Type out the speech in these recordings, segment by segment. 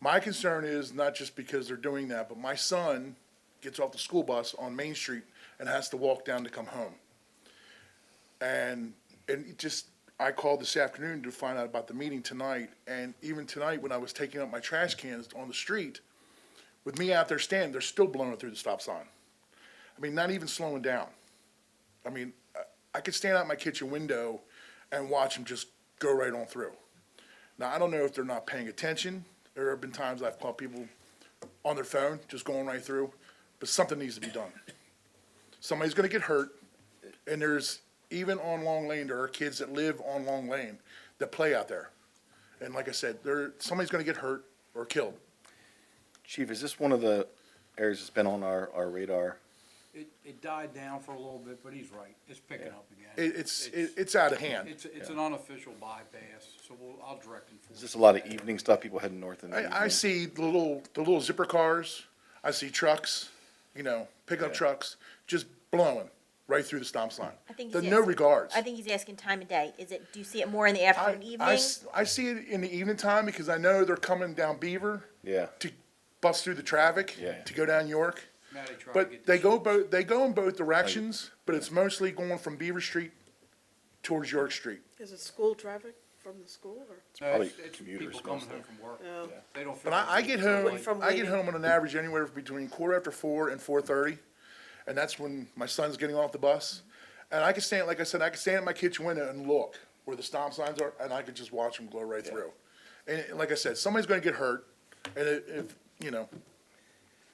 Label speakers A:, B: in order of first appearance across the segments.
A: My concern is not just because they're doing that, but my son gets off the school bus on Main Street and has to walk down to come home. And, and it just, I called this afternoon to find out about the meeting tonight, and even tonight, when I was taking up my trash cans on the street, with me out there standing, they're still blowing through the stop sign. I mean, not even slowing down. I mean, I- I could stand out my kitchen window and watch them just go right on through. Now, I don't know if they're not paying attention. There have been times I've caught people on their phone just going right through, but something needs to be done. Somebody's going to get hurt, and there's even on Long Lane, there are kids that live on Long Lane that play out there. And like I said, there somebody's going to get hurt or killed.
B: Chief, is this one of the areas that's been on our, our radar?
C: It, it died down for a little bit, but he's right, it's picking up again.
A: It, it's it, it's out of hand.
C: It's, it's an unofficial bypass, so we'll, I'll direct him
B: Is
C: for
B: this
C: it.
B: a lot of evening stuff, people heading north in the evening?
A: I, I see the little, the little zipper cars, I see trucks, you know, pickup trucks, just blowing right through the stop sign.
D: I think
A: The
D: he's
A: no
D: asking-
A: regards.
D: I think he's asking time of day. Is it, do you see it more in the
A: I-
D: afternoon,
A: I
D: evening?
A: s- I see it in the evening time because I know they're coming down Beaver.
B: Yeah.
A: To bust through the traffic.
B: Yeah.
A: To go down York.
C: Matty tried to
A: But
C: get
A: they
C: this,
A: go both, they go in both directions, but it's mostly going from Beaver Street towards York Street.
E: Is it school traffic from the school or?
C: no,
B: probably
C: it's, it's
B: commuters
C: people coming home
B: mostly.
C: from work,
E: No.
C: they don't.
A: But I, I get home,
E: From
A: I get
E: waiting.
A: home on an average anywhere between quarter after four and four thirty, and that's when my son's getting off the bus. And I can stand, like I said, I can stand at my kitchen window and look where the stop signs are, and I could just watch them glow right through. And it- like I said, somebody's gonna get hurt, and it- if, you know,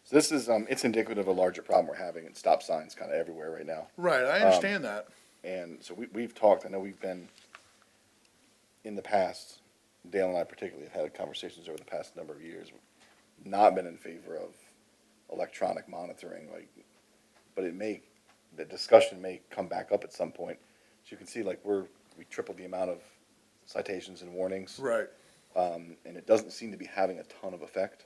B: So this is, um, it's indicative of a larger problem we're having, and stop signs kind of everywhere right now.
A: right, I understand that.
B: And so we, we've talked, I know we've been, in the past, Dale and I particularly have had conversations over the past number of years, not been in favor of electronic monitoring, like, but it may, the discussion may come back up at some point. So you can see, like, we're, we tripled the amount of citations and warnings.
A: Right.
B: um, and it doesn't seem to be having a ton of effect.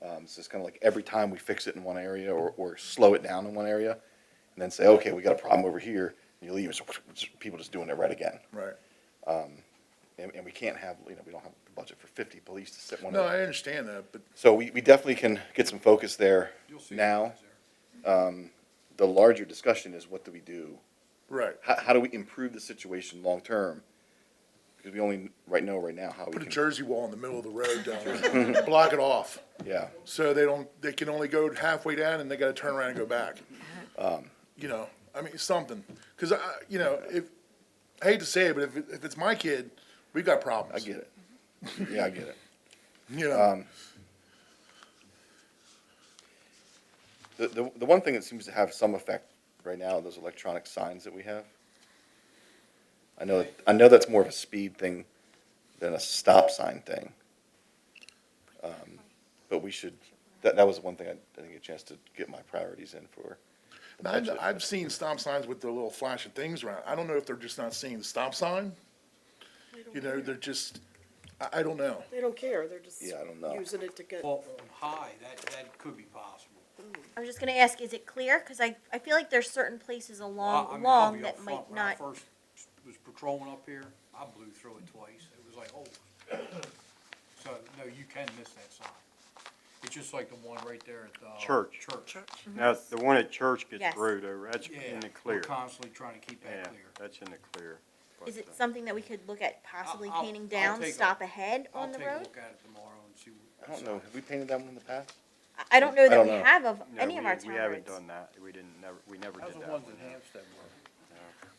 B: Um, so it's kind of like every time we fix it in one area or, or slow it down in one area, and then say, okay, we got a problem over here, and you leave, and so people just doing it right again.
A: Right.
B: And, and we can't have, you know, we don't have the budget for fifty police to sit one.
A: No,
B: of
A: I understand that, but
B: So we, we definitely can get some focus there
C: You'll see.
B: now.
C: it there.
B: The larger discussion is what do we do?
A: right.
B: How, how do we improve the situation long-term? Because we only right know right now how we
A: Put a
B: can,
A: Jersey wall in the middle of the road down there, block it off,
B: yeah.
A: so they don't, they can only go halfway down and they gotta turn around and go back. Um, You know, I mean, something, cause I, you know, if, I hate to say it, but if, it- if it's my kid, we've got
B: I
A: problems.
B: get it. Um, Yeah, I get it.
A: You know,
B: The, the, the one thing that seems to have some effect right now are those electronic signs that we have. I know, I know that's more of a speed thing than a stop sign thing. Um, But we should, that, that was one thing I didn't get a chance to get my priorities in for.
A: And I've, I've seen stop signs with the little flashing things around, I don't know if they're just not seeing the stop sign. You know, they're just, I, I don't know,
E: They don't care, they're just
B: Yeah, I don't know.
E: using it to get,
C: Well, on high, that, that could be possible.
D: I was just gonna ask, is it clear? Cause I, I feel like there's certain places
C: I- I
D: along,
C: mean, I'll
D: along
C: be
D: that
C: upfront,
D: might
C: when I
D: not,
C: First was patrolling up here, I blew through it twice, it was like, oh. So, no, you can miss that sign. It's just like the one right there at the.
F: Church.
C: Church.
F: Now, the one at church gets
D: Yes.
F: through though, that's
C: Yeah,
F: in the
C: we're
F: clear.
C: constantly trying to keep
F: Yeah,
C: that clear.
F: that's in the clear.
D: is
F: But,
D: it
F: uh,
D: something that we could look at possibly
C: I'll- I'll-
D: painting
C: I'll
D: down,
C: take a-
D: stop ahead
C: I'll
D: on the
C: take a
D: road?
C: look at it tomorrow and see. what-
B: I don't know, have we painted that one in the past?
D: I- I don't know that
B: don't
D: we
B: know.
D: have of
F: no,
D: any of
F: we-
D: our town
F: We haven't
D: roads.
F: done that. We didn't, never, we never
C: How's
F: did
C: the
F: that
C: ones in
F: one.
C: Hampstead work with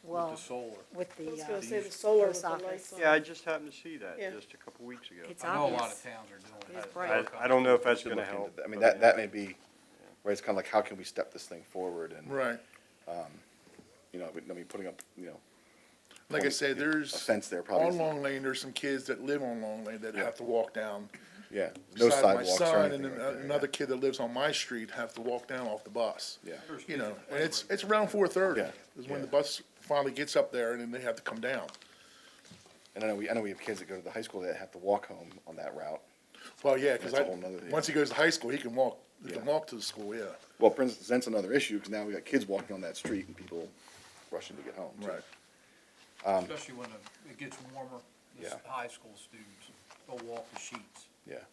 G: Well,
C: the solar?
G: with
E: I
G: the,
E: was
G: uh,
E: gonna say the solar with
G: post
E: the
G: office.
E: lights on.
F: Yeah, I just happened to see that
E: Yeah.
F: just a couple weeks ago.
G: it's
C: I know a lot of
G: obvious.
C: towns are doing
G: It's
C: that.
G: bright.
F: I, I don't know if that's
B: Should
F: gonna
B: look into
F: help.
B: that. I mean, that,
F: but
B: that may be, right, it's kind of like, how can we step this thing forward and,
A: right,
B: you know, I mean, putting up, you know,
A: like I said, there's.
B: A fence there probably
A: On
B: isn't-
A: Long Lane, there's some kids that live on Long Lane that have to walk down.
B: yeah, no
A: beside my
B: sidewalks or
A: son And
B: anything like that,
A: an-
B: yeah.
A: another kid that lives on my street have to walk down off the bus.
B: Yeah.
A: You know, and it's, it's around four thirty
B: Yeah,
A: is when
B: yeah.
A: the bus finally gets up there and then they have to come down.
B: And I know we, I know we have kids that go to the high school that have to walk home on that route.
A: Well, yeah, cause
B: That's
A: I,
B: a whole nother-
A: once he goes to high school, he can walk, he
B: Yeah.
A: can walk to the school, yeah,
B: Well, for instance, that's another issue, because now we got kids walking on that street and people rushing to get home. so-
A: right.
F: um,
C: Especially when it- it gets warmer, the s-
B: Yeah.
C: high school students, they'll walk the sheets.
B: Yeah.